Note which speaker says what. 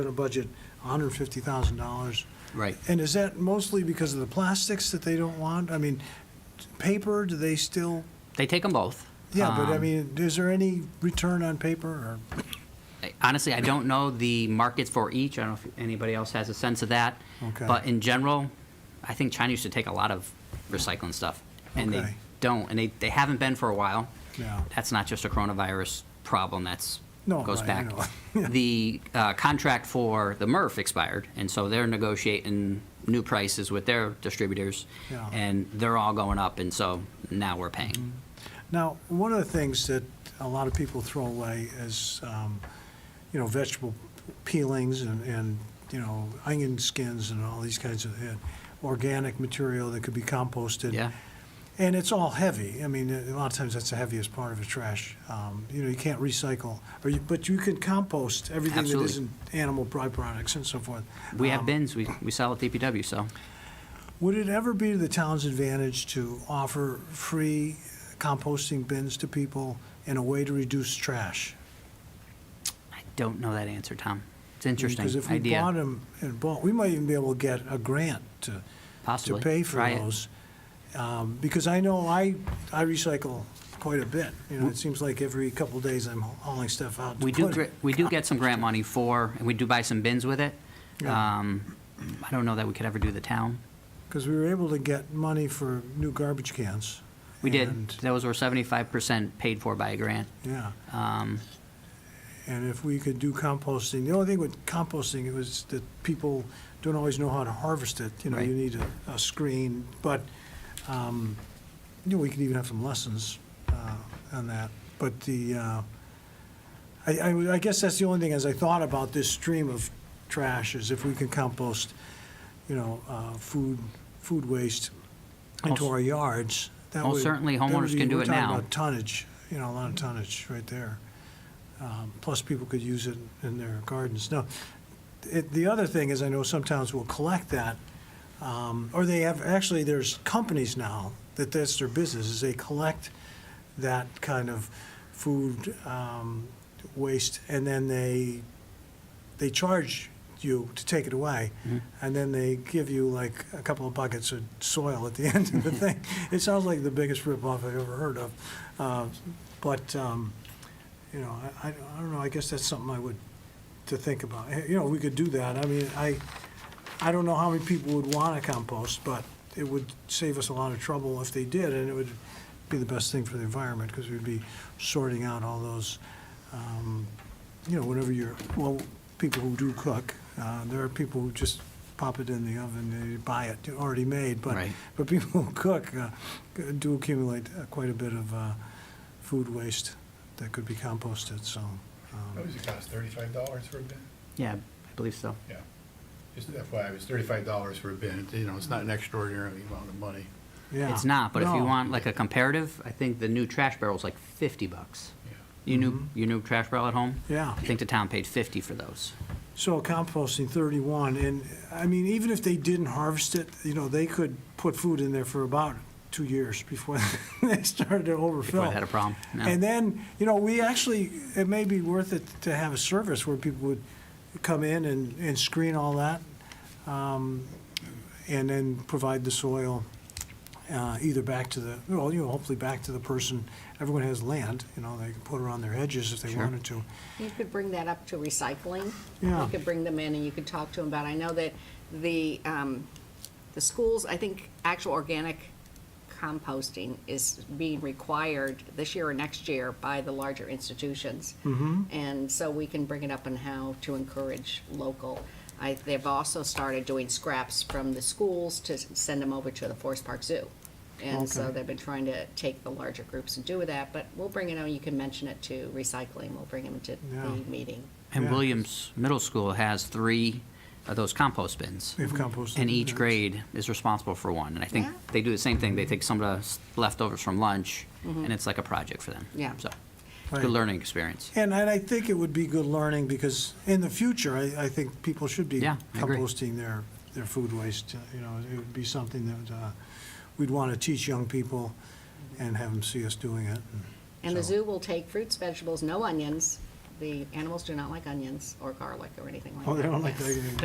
Speaker 1: at a budget, $150,000.
Speaker 2: Right.
Speaker 1: And is that mostly because of the plastics that they don't want? I mean, paper, do they still,
Speaker 2: They take them both.
Speaker 1: yeah, but I
Speaker 2: Um,
Speaker 1: mean, is there any return on paper or?
Speaker 2: I- Honestly, I don't know the markets for each. I don't know if anybody else has a sense of that.
Speaker 1: Okay.
Speaker 2: But in general, I think China used to take a lot of recycling stuff, and
Speaker 1: Okay.
Speaker 2: they don't, and they, they haven't been for a while.
Speaker 1: Yeah.
Speaker 2: That's not just a coronavirus problem. That's
Speaker 1: No,
Speaker 2: goes
Speaker 1: I- I
Speaker 2: back.
Speaker 1: know. Yeah.
Speaker 2: The uh, contract for the MRF expired, and so they're negotiating new prices with their distributors,
Speaker 1: Yeah.
Speaker 2: and they're all going up, and so now we're paying.
Speaker 1: Mm-hmm. Now, one of the things that a lot of people throw away is, um, you know, vegetable peelings and, and, you know, onion skins and all these kinds of, and organic material that could be composted.
Speaker 2: Yeah.
Speaker 1: And it's all heavy. I mean, a lot of times that's the heaviest part of the trash. Um, You know, you can't recycle, or you, but you can compost everything that
Speaker 2: Absolutely.
Speaker 1: isn't animal byproducts and so forth.
Speaker 2: We have
Speaker 1: Um,
Speaker 2: bins. We, we sell at DPW, so.
Speaker 1: Would it ever be to the town's advantage to offer free composting bins to people in a way to reduce trash?
Speaker 2: I don't know that answer, Tom. It's an interesting
Speaker 1: Because if we
Speaker 2: idea.
Speaker 1: bought them and bought, we might even be able to get a grant to, to
Speaker 2: Possibly.
Speaker 1: pay for
Speaker 2: Try it.
Speaker 1: those. Um, Because I know I, I recycle quite a bit. You know, it seems like every couple of days I'm hauling stuff out to
Speaker 2: we do
Speaker 1: put
Speaker 2: gr-
Speaker 1: it.
Speaker 2: we do get some grant money for, and we do buy some bins with it.
Speaker 1: Yeah.
Speaker 2: Um, I don't know that we could ever do the town.
Speaker 1: Because we were able to get money for new garbage cans.
Speaker 2: We did.
Speaker 1: and-
Speaker 2: Those were seventy-five percent paid for by a grant.
Speaker 1: Yeah.
Speaker 2: Um,
Speaker 1: And if we could do composting, the only thing with composting, it was that people don't always know how to harvest it. You know, you
Speaker 2: Right.
Speaker 1: need a, a screen, but, um, you know, we could even have some lessons, uh, on that. But the, uh, I, I, would- I guess that's the only thing, as I thought about this stream of trash, is if we can compost, you know, uh, food, food waste into
Speaker 2: Well,
Speaker 1: our yards, that
Speaker 2: well,
Speaker 1: would.
Speaker 2: certainly
Speaker 1: that would
Speaker 2: homeowners
Speaker 1: be-
Speaker 2: can do
Speaker 1: we're
Speaker 2: it
Speaker 1: talking
Speaker 2: now.
Speaker 1: about Tonnage, you know, a lot of tonnage right there. Um, Plus, people could use it in their gardens. Now, it, the other thing is, I know some towns will collect that, um, or they have, actually, there's companies now that that's their business, is they collect that kind of food um, waste, and then they, they charge you to take it away, and then they give you like a couple of buckets of soil at the end of the thing. It sounds like the biggest ripoff I've ever heard of. Uh, But, um, you know, I, I I don't know, I guess that's something I would, to think about. Eh, You know, we could do that. I mean, I, I don't know how many people would want to compost, but it would save us a lot of trouble if they did, and it would be the best thing for the environment, because we'd be sorting out all those, um, you know, whenever you're, well, people who do cook, uh, there are people who just pop it in the oven, they buy it already made, but,
Speaker 2: Right.
Speaker 1: but people who cook uh, do accumulate uh, quite a bit of uh, food waste that could be composted, so. um,
Speaker 3: What does it cost, thirty-five dollars for a bin?
Speaker 2: yeah, I believe so.
Speaker 3: Yeah. Just FYI, it was thirty-five dollars for a bin, you know, it's not an extraordinary amount of money.
Speaker 1: Yeah.
Speaker 2: It's not, but if you
Speaker 1: No.
Speaker 2: want like a comparative, I think the new trash barrel's like fifty bucks.
Speaker 3: Yeah.
Speaker 2: You knew, you knew trash barrel at home?
Speaker 1: Mm-hmm. Yeah.
Speaker 2: I think the town paid fifty for those.
Speaker 1: So composting 31, and, I mean, even if they didn't harvest it, you know, they could put food in there for about two years before they started to overfill.
Speaker 2: Before they had a problem. No.
Speaker 1: And then, you know, we actually, it may be worth it to have a service where people would come in and, and screen all that, um, and then provide the soil uh, either back to the, well, you know, hopefully back to the person. Everyone has land, you know, they can put it on their hedges if they
Speaker 2: Sure.
Speaker 1: wanted to.
Speaker 4: You could bring that up to recycling.
Speaker 1: Yeah.
Speaker 4: You could bring them in and you could talk to them about, I know that the, um, the schools, I think actual organic composting is being required this year or next year by the larger institutions.
Speaker 1: Mm-hmm.
Speaker 4: And so we can bring it up on how to encourage local. I, they've also started doing scraps from the schools to s- send them over to the Forest Park Zoo. And so
Speaker 1: Okay.
Speaker 4: they've been trying to take the larger groups and do that, but we'll bring it on, you can mention it to recycling, we'll bring them to
Speaker 1: Yeah.
Speaker 4: the meeting.
Speaker 2: And
Speaker 1: Yeah.
Speaker 2: Williams Middle School has three of those compost bins.
Speaker 1: They've composted.
Speaker 2: And each
Speaker 1: it.
Speaker 2: grade is responsible for one. And I think
Speaker 4: Yeah.
Speaker 2: they do the same thing. They take some of the s- leftovers from lunch, and it's like a project for them.
Speaker 4: Mm-hmm. Yeah.
Speaker 2: So,
Speaker 1: Right.
Speaker 2: good learning experience.
Speaker 1: And, and I think it would be good learning, because in the future, I, I think people should be
Speaker 2: Yeah, I agree.
Speaker 1: composting their, their food waste, you know, it would be something that, uh, we'd want to teach young people and have them see us doing it.
Speaker 4: And the
Speaker 1: So-
Speaker 4: zoo will take fruits, vegetables, no onions,
Speaker 5: the animals do not like onions or garlic or anything like that.
Speaker 4: Oh, they don't like that anymore.